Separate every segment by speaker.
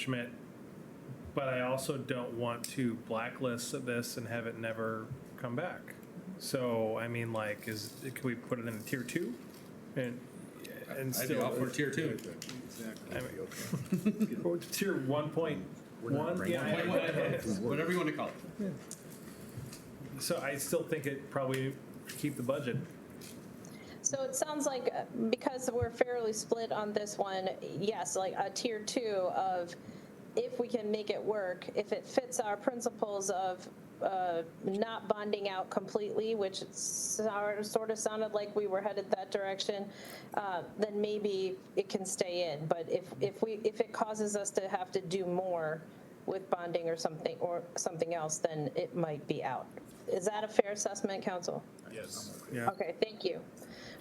Speaker 1: Schmidt, but I also don't want to blacklist this and have it never come back. So, I mean, like, is, can we put it in tier two? And, and
Speaker 2: I'd be all for
Speaker 1: still,
Speaker 2: tier two.
Speaker 1: or tier one point one? Yeah, I-
Speaker 2: Whatever you want to call it.
Speaker 1: So I still think it probably keep the budget.
Speaker 3: So it sounds like, uh, because we're fairly split on this one, yes, like a tier two of if we can make it work, if it fits our principles of uh, not bonding out completely, which it sor- sort of sounded like we were headed that direction, uh, then maybe it can stay in. But if, if we, if it causes us to have to do more with bonding or something, or something else, then it might be out. Is that a fair assessment, council? Okay, thank you.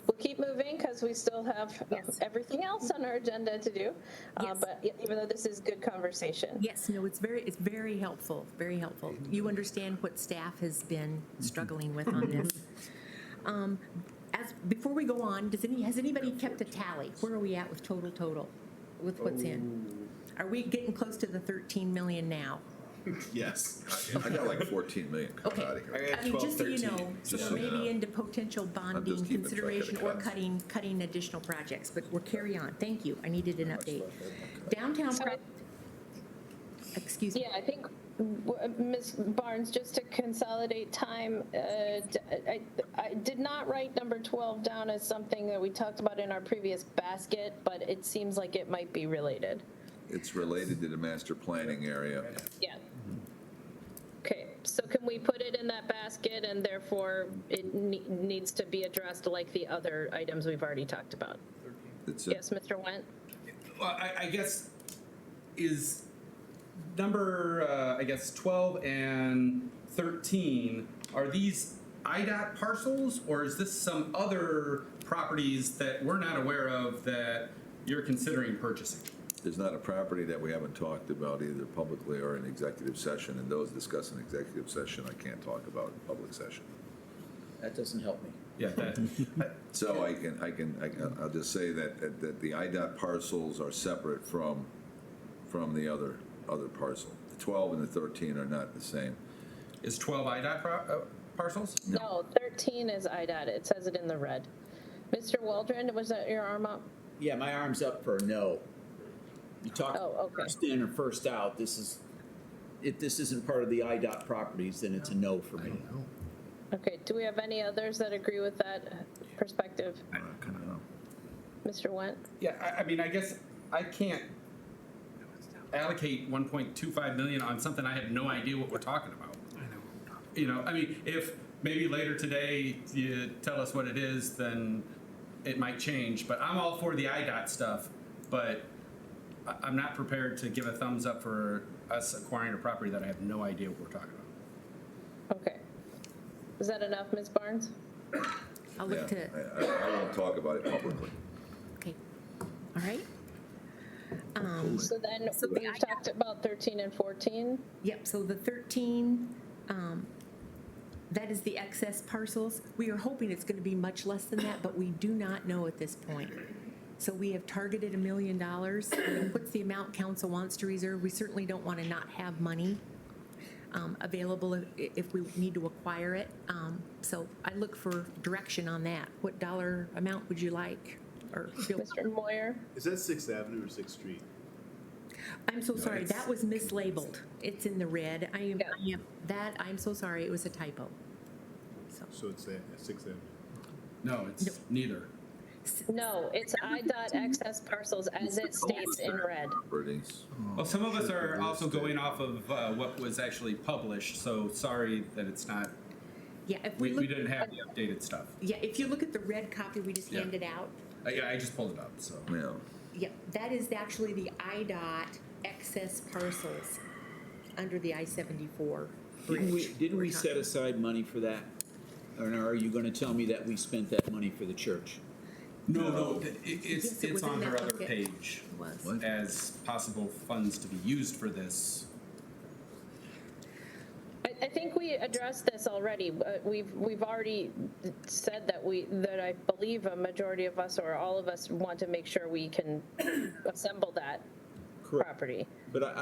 Speaker 3: We'll keep moving because we still have uh, everything else on our agenda to do. Uh,
Speaker 4: Yes.
Speaker 3: But e- even though this is good conversation.
Speaker 4: Yes, no, it's very, it's very helpful, very helpful. You understand what staff has been struggling with on this. Um, As, before we go on, does any, has anybody kept a tally? Where are we at with total, total, with what's in?
Speaker 5: Oh.
Speaker 4: Are we getting close to the 13 million now?
Speaker 6: Yes.
Speaker 5: I got like 14 million coming
Speaker 4: Okay.
Speaker 5: out of
Speaker 2: I
Speaker 5: here.
Speaker 2: got
Speaker 4: I mean, just so you
Speaker 2: 12,
Speaker 4: know, so
Speaker 5: Just
Speaker 4: we're
Speaker 5: so you
Speaker 4: maybe
Speaker 5: know.
Speaker 4: into potential bonding
Speaker 5: keeping track of the
Speaker 4: consideration or
Speaker 5: cuts.
Speaker 4: cutting, cutting additional projects, but we're carry on. Thank you, I needed an update. Downtown,
Speaker 3: So-
Speaker 4: pro- excuse me.
Speaker 3: Yeah, I think, w- uh, Ms. Barnes, just to consolidate time, uh, d- I I did not write number 12 down as something that we talked about in our previous basket, but it seems like it might be related.
Speaker 5: It's related to the master planning area.
Speaker 3: Yeah. Okay, so can we put it in that basket and therefore it ne- needs to be addressed like the other items we've already talked about?
Speaker 5: It's a-
Speaker 3: Yes, Mr. Went?
Speaker 2: Well, I, I guess is number uh, I guess twelve and thirteen. Are these IDOT parcels, or is this some other properties that we're not aware of that you're considering purchasing?
Speaker 5: There's not a property that we haven't talked about either publicly or in executive session, and those discussed in executive session, I can't talk about in public session.
Speaker 7: That doesn't help me.
Speaker 2: Yeah, that,
Speaker 5: So I can, I can, I can- I'll just say that, that- that the IDOT parcels are separate from, from the other, other parcel. The 12 and the 13 are not the same.
Speaker 2: is twelve IDOT pro- uh, parcels?
Speaker 3: No, 13 is IDOT, it says it in the red. Mr. Waldron, was that your arm up?
Speaker 7: Yeah, my arm's up for a no. You talk
Speaker 3: Oh, okay.
Speaker 7: first in or first out, this is, if this isn't part of the IDOT properties, then it's a no for me.
Speaker 3: Okay, do we have any others that agree with that perspective?
Speaker 5: I don't know.
Speaker 3: Mr. Went?
Speaker 2: Yeah, I, I mean, I guess I can't allocate one point two five million on something I have no idea what we're talking about. You know, I mean, if maybe later today you tell us what it is, then it might change, but I'm all for the IDOT stuff, but I, I'm not prepared to give a thumbs up for us acquiring a property that I have no idea what we're talking about.
Speaker 3: Okay. Is that enough, Ms. Barnes?
Speaker 4: I'll
Speaker 5: Yeah,
Speaker 4: look to.
Speaker 5: I- I I won't talk about it publicly.
Speaker 4: Okay, all right.
Speaker 3: So then,
Speaker 4: So the
Speaker 3: we've
Speaker 4: IDOT
Speaker 3: talked about 13 and 14.
Speaker 4: Yep, so the 13, um, that is the excess parcels. We are hoping it's going to be much less than that, but we do not know at this point. So we have targeted a million dollars. What's the amount council wants to reserve? We certainly don't want to not have money um, available if- if we need to acquire it. Um, So I look for direction on that. What dollar amount would you like? Or feel-
Speaker 3: Mr. Moyer?
Speaker 8: Is that Sixth Avenue or Sixth Street?
Speaker 4: I'm so sorry, that was mislabeled. It's in the red. I am, I am, that, I'm so sorry, it was a typo. So,
Speaker 8: So it's that, Sixth Avenue.
Speaker 2: No,
Speaker 4: Nope.
Speaker 2: it's neither.
Speaker 3: No, it's IDOT excess parcels as it states in red.
Speaker 5: Bernie's.
Speaker 2: Well, some of us are also going off of uh, what was actually published, so sorry that it's not,
Speaker 4: yeah, if we
Speaker 2: we, we
Speaker 4: look,
Speaker 2: didn't have the updated stuff.
Speaker 4: yeah, if you look at the red copy we just
Speaker 2: Yeah.
Speaker 4: handed out,
Speaker 2: I, I just pulled it up, so.
Speaker 5: Yeah.
Speaker 4: yeah, that is actually the IDOT excess parcels under the I-74
Speaker 7: Didn't we,
Speaker 4: bridge.
Speaker 7: didn't we set aside money for that? Or are you gonna tell me that we spent that money for the church?
Speaker 2: No,
Speaker 4: Oh.
Speaker 2: no, it, it's,
Speaker 4: Yes, it
Speaker 2: it's
Speaker 4: was
Speaker 2: on
Speaker 4: in
Speaker 2: her
Speaker 4: that
Speaker 2: other
Speaker 4: bucket.
Speaker 2: page
Speaker 4: It was.
Speaker 2: as possible funds to be used for this.
Speaker 3: I, I think we addressed this already. Uh, We've, we've already said that we, that I believe a majority of us or all of us want to make sure we can assemble that
Speaker 7: Correct.
Speaker 3: property.
Speaker 7: But I,